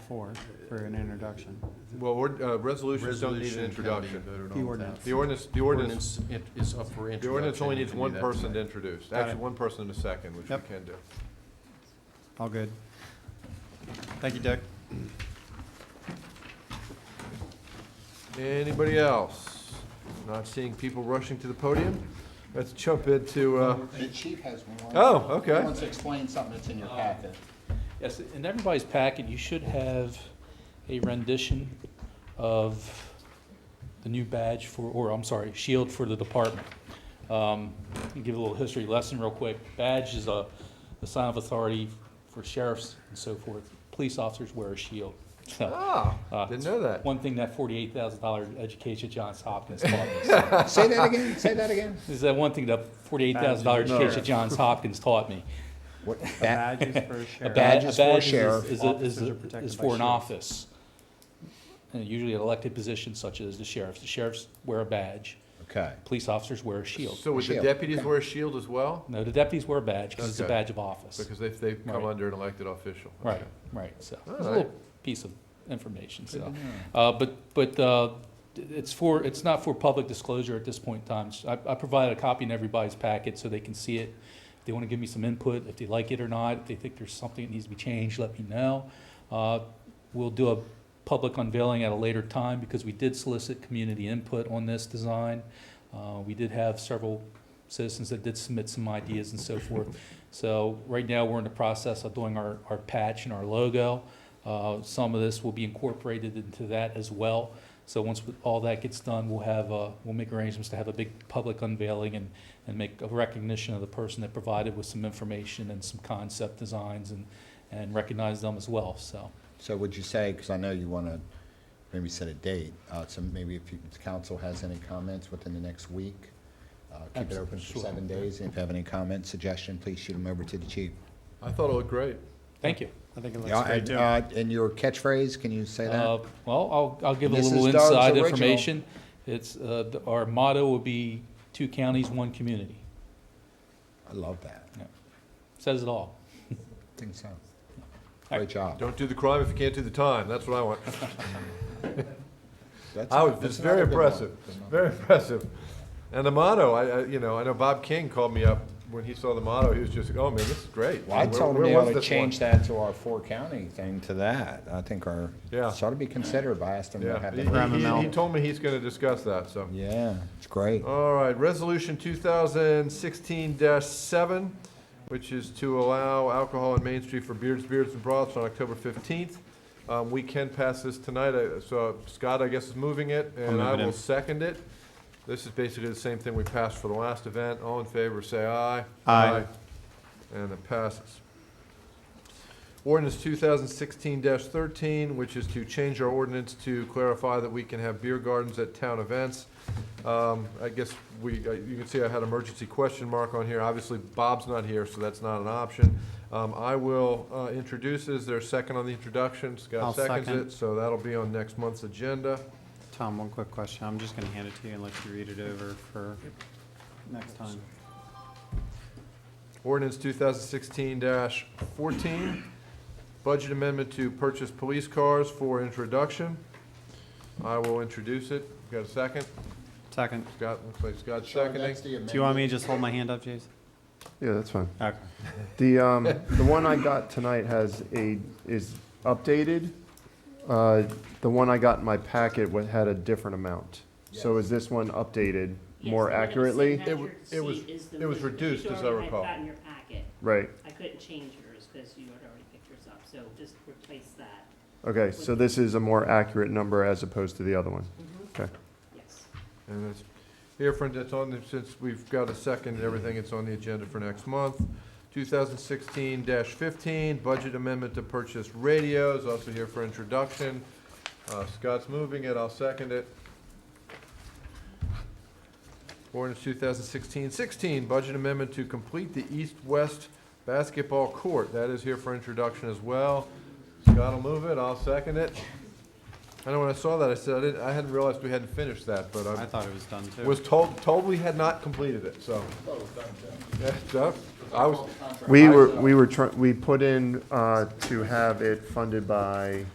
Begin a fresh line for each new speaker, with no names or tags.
before for an introduction.
Well, ord- uh, resolutions don't need
Resolution can be
an introduction.
voted on.
The
without-
ordinance.
The ordinance, the
The
ordinance,
ordinance in- is up for introduction.
the ordinance only
You
needs
can do
one
that
person to
tonight.
introduce.
Got
Actually,
it.
one person and a second, which we
Yep.
can do.
All good. Thank you, Doug.
Anybody else? Not seeing people rushing to the podium? Let's jump into, uh,
The chief has one.
Oh, okay.
He wants to explain something that's in your packet.
Yes, in everybody's packet, you should have a rendition of the new badge for, or I'm sorry, shield for the department. Um, I'll Give a little history lesson real quick. Badge is a, a sign of authority for sheriffs and so forth. Police officers wear a shield. So,
ah,
uh,
didn't know that.
One thing that forty-eight thousand dollar education at Johns Hopkins taught me. So,
Say that again, say that again.
This is that one thing that forty-eight thousand dollar education at Johns Hopkins taught me.
Badges for a
A
sheriff.
badge,
Badge
a
is for
badge is,
sheriff.
is, a- is,
Officers are
a-
protected
is
by
for an
shields.
office. And usually an elected position such as the sheriff's. The sheriffs wear a badge.
Okay.
Police officers wear a shield.
So would the
Shield,
deputies
okay.
wear a shield as well?
No, the deputies wear a badge because it's a
Okay.
badge of office.
Because they've, they've come
Right.
under an elected official.
Right,
Okay.
right, so,
All
it's a
right.
little piece of information, so. Uh, but, but, uh, it's for, it's not for public disclosure at this point in time. So I, I provided a copy in everybody's packet so they can see it. If they wanna give me some input, if they like it or not, if they think there's something that needs to be changed, let me know. Uh, we'll do a public unveiling at a later time because we did solicit community input on this design. Uh, we did have several citizens that did submit some ideas and so forth. So right now, we're in the process of doing our, our patch and our logo. Uh, Some of this will be incorporated into that as well. So once we- all that gets done, we'll have, uh, we'll make arrangements to have a big public unveiling and, and make a recognition of the person that provided with some information and some concept designs and, and recognize them as well, so.
So would you say, because I know you want to maybe set a date, uh, so maybe if you- if the council has any comments within the next week, uh, keep it open for
Absolutely, sure.
seven days, and if you have any comments, suggestion, please shoot them over to the chief.
I thought it looked great.
Thank you.
I think it
Yeah,
looks great
And
too.
uh, and your catchphrase, can you say
Uh,
that?
Well, I'll, I'll give a
This is
little
Doug's
inside
original.
information. It's, uh, th- our motto would be, two counties, one community.
I love that.
Says it all.
I think so. Great job.
Don't do the crime if you can't do the time. That's what I want.
That's-
I was,
that's
it's very
another good one.
impressive, very impressive. And the motto, I, I, you know, I know Bob King called me up when he saw the motto, he was just, like, oh man, this is great.
Well, I
Where-
told him
where
they
was
ought to
this
change
one?
that to our four-county thing to that. I think our,
Yeah.
it ought to be considered. I asked him to have
Yeah,
that.
he- he- he,
Mel.
he told me he's gonna discuss that, so.
Yeah, it's great.
All right, resolution two thousand sixteen seven, which is to allow alcohol on Main Street for beards, beards and broths on October fifteenth. Um, we can pass this tonight, I- so Scott, I guess, is moving it, and I will second it. This is basically the same thing we passed for the last event. All in favor, say aye.
Aye.
And it passes. Ordinance two thousand sixteen thirteen, which is to change our ordinance to clarify that we can have beer gardens at town events. Um, I guess we, uh, you can see I had emergency question mark on here. Obviously, Bob's not here, so that's not an option. Um, I will, uh, introduce, is there a second on the introduction?
I'll
Scott seconds
second.
it, so that'll be on next month's agenda.
Tom, one quick question. I'm just gonna hand it to you and let you read it over for next time.
Ordinance two thousand sixteen fourteen, budget amendment to purchase police cars for introduction. I will introduce it. Got a second?
Second,
Scott, looks like Scott's
Sean,
seconding.
that's the
do you want me
amendment.
to just hold my hand up, Jason?
Yeah, that's fine.
Okay.
The, um, the one I got tonight has a, is updated. Uh, The one I got in my packet wa- had a different amount. So is this one updated
Yes,
more
the one that's
accurately?
in that
It wa-
your
it was-
seat is the
it was
one that you
reduced, as I
already had
recall.
got in your packet.
Right,
I couldn't change yours because you had already picked yours up, so just replace that,
okay, so this is a more accurate number as opposed to the other one?
Mm-hmm.
Okay.
yes.
And it's, here, friend, that's on, the- since we've got a second and everything, it's on the agenda for next month. Two thousand sixteen fifteen, budget amendment to purchase radios, also here for introduction. Uh, Scott's moving it, I'll second it. Ordinance 2016-16, budget amendment to complete the east-west basketball court, that is here for introduction as well. Scott will move it, I'll second it. I know when I saw that, I said, I didn't, I hadn't realized we hadn't finished that, but I'm
I thought it was done too.
was told, told we had not completed it, so. Yeah, Jeff, I was,
We were, we were trying, we put in uh, to have it funded by